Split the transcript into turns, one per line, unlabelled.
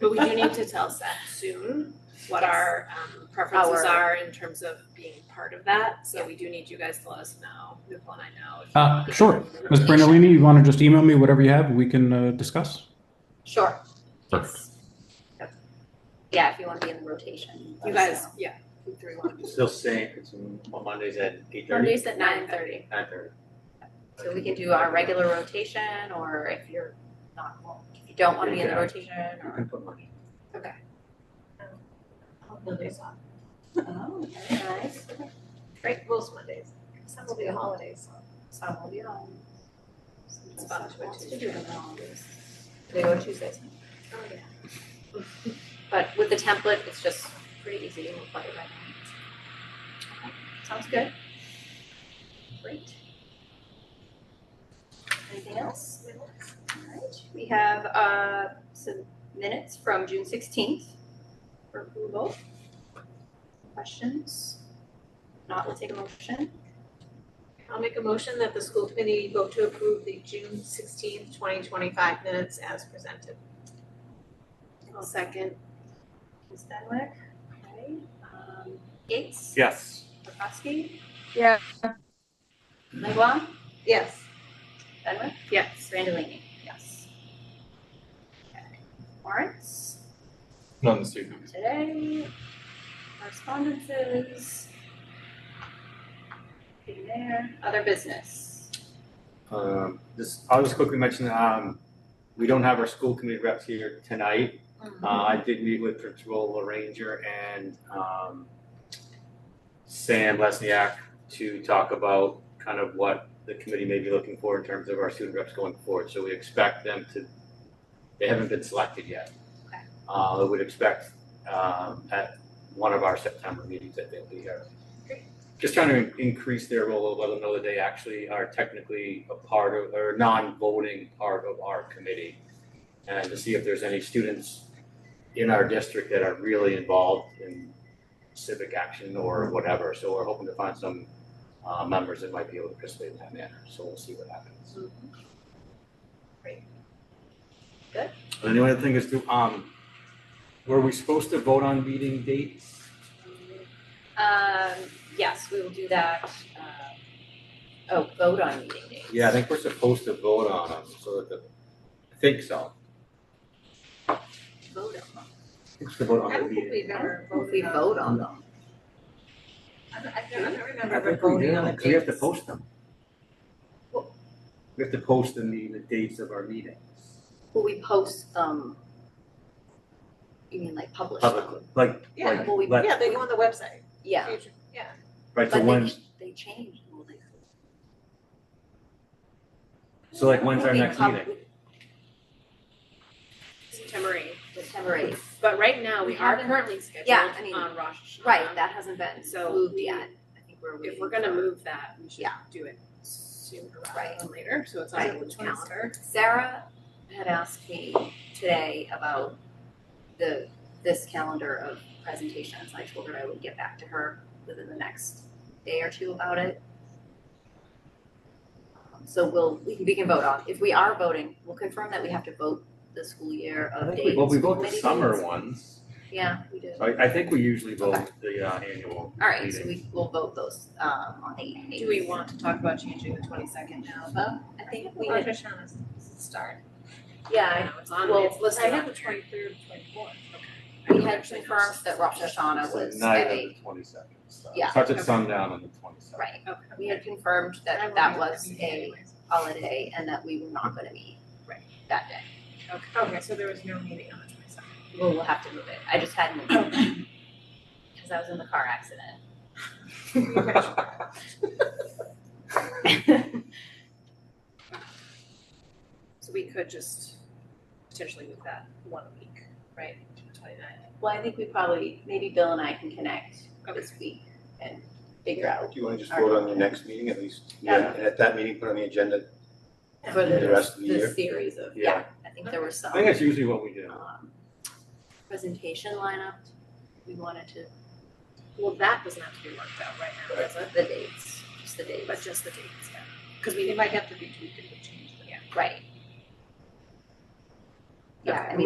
But we do need to tell Seth soon what our um preferences
Our-
are in terms of being part of that, so we do need you guys to let us know, Nicole and I know. if
Uh,
you-
sure. Ms. Brandolini, you want to just email me whatever you have? We can uh, discuss.
Sure.
Perfect.
Yep. Yeah, if you want to be in the rotation.
You guys, yeah, you three one.
Still same, it's on Mondays at eight thirty?
Monday's at nine thirty,
Nine thirty.
so we can do our regular rotation, or if you're not, well, if you don't want to be in the
Yeah.
rotation,
You
or.
can put Monday.
Mondays off.
Oh, very nice.
Frank rules Mondays. Some will be holidays, some will be on.
It's fun to
Wants to
do.
do it on these. They go Tuesdays, Oh, but with the template, it's just pretty easy, we'll plug it right in. Okay, Sounds good. Great. Anything else? Alright, we have uh some minutes from June sixteenth for approval. Questions? Not, we'll take a motion.
I'll make a motion that the school committee vote to approve the June sixteenth, twenty twenty-five minutes as presented.
I'll second.
Ms. Benwick,
Okay,
um Gates,
Yes.
Prokowski,
Yeah,
Langwell,
Yes.
Benwick,
Yes,
Randallini. Yes. Okay, warrants.
None this evening.
today, correspondences. Anything there, other business.
Um, this, I'll just quickly mention, um, we don't have our school committee reps here tonight. Uh, I did meet with Principal LaRanger and, um, Sam Lesniak to talk about kind of what the committee may be looking for in terms of our student reps going forward. So we expect them to, they haven't been selected yet.
Okay.
Uh, I would expect, um, at one of our September meetings that they'll be here just trying to in- increase their role, let them know that they actually are technically a part of, or non-voting part of our committee. And to see if there's any students in our district that are really involved in civic action or whatever. So we're hoping to find some uh, members that might be able to participate in that manner. So we'll see what happens.
Um, Great. Good.
And the only other thing is to, um, were we supposed to vote on meeting dates?
Um, yes, we will do that, uh, oh, vote on meeting dates.
Yeah, I think we're supposed to vote on them, so that the, I think so.
Vote on them.
It's the vote on
I
the
don't think we've
meeting.
ever
Well, if
voted
we
on-
vote on them.
I don't, I don't I don't remember
I
ever
think we
voting
do,
on the
'cause we have to
dates.
post them. We have to post the meeting, the dates of our meetings.
Will we post them? You mean like publish them?
Publicly, like,
Yeah,
like,
Will we,
let-
yeah, they go on the website.
yeah,
Future- Yeah,
right,
but
so
they,
when,
ch- they change, will they?
so like, when's our
Will they
next
pub-
meeting?
September eighth.
September eighth,
But right now, we
We
are
haven't-
currently
Yeah, I
scheduled
mean,
on Rosh Hashanah.
right, that hasn't been
So
moved
we-
yet, I think we're waiting
If we're gonna
for-
move that, we should
Yeah.
do it sooner rather
Right.
than later, so it's on
Right.
the calendar.
Sarah had asked me today about the, this calendar of presentations. I told her I would get back to her within the next day or two about it. Um, So we'll, we can, we can vote on, if we are voting, we'll confirm that we have to vote the school year
I
of
think we-
dates.
Well, we vote the
committee
summer
dates.
ones,
Yeah, we do.
So I, I think we usually vote
Okay.
the uh, annual
All right, so
meeting.
we, we'll vote those, um, on the eighth.
Do we want to talk about changing the twenty-second now, though?
I think we,
Rosh Hashanah's start.
yeah,
It's on,
well,
it's listed
I
on
had the
there.
twenty-third, twenty-fourth.
I- we had confirmed that Rosh Hashanah
It's the
was
night
at
of
eight,
the twenty-second, so.
Yeah.
Starts at
Okay.
sundown on the twenty-second.
right?
Okay.
We had confirmed that that was a holiday and that we were not gonna be
Right.
that day.
Okay, so there was no meeting on the twenty-second.
Well, we'll have to move it. I just hadn't moved it. Cause I was in the car accident.
So we could just potentially move that one week, right, to the twenty-ninth.
Well, I think we probably, maybe Bill and I can connect this week and figure out
Do you want to just vote on the next meeting at least?
Yeah.
And at that meeting, put on the agenda
for
for the
the,
rest of the
the
year?
series of, yeah,
Yeah.
I think there were some.
I think that's usually what we do.
um, Presentation lineup, we wanted to,
Well, that doesn't have to be worked out right now, does it?
the dates, just the dates,
But just the dates, yeah. Cause we
It might have to be tweaked if we change the
right? Yeah, I mean,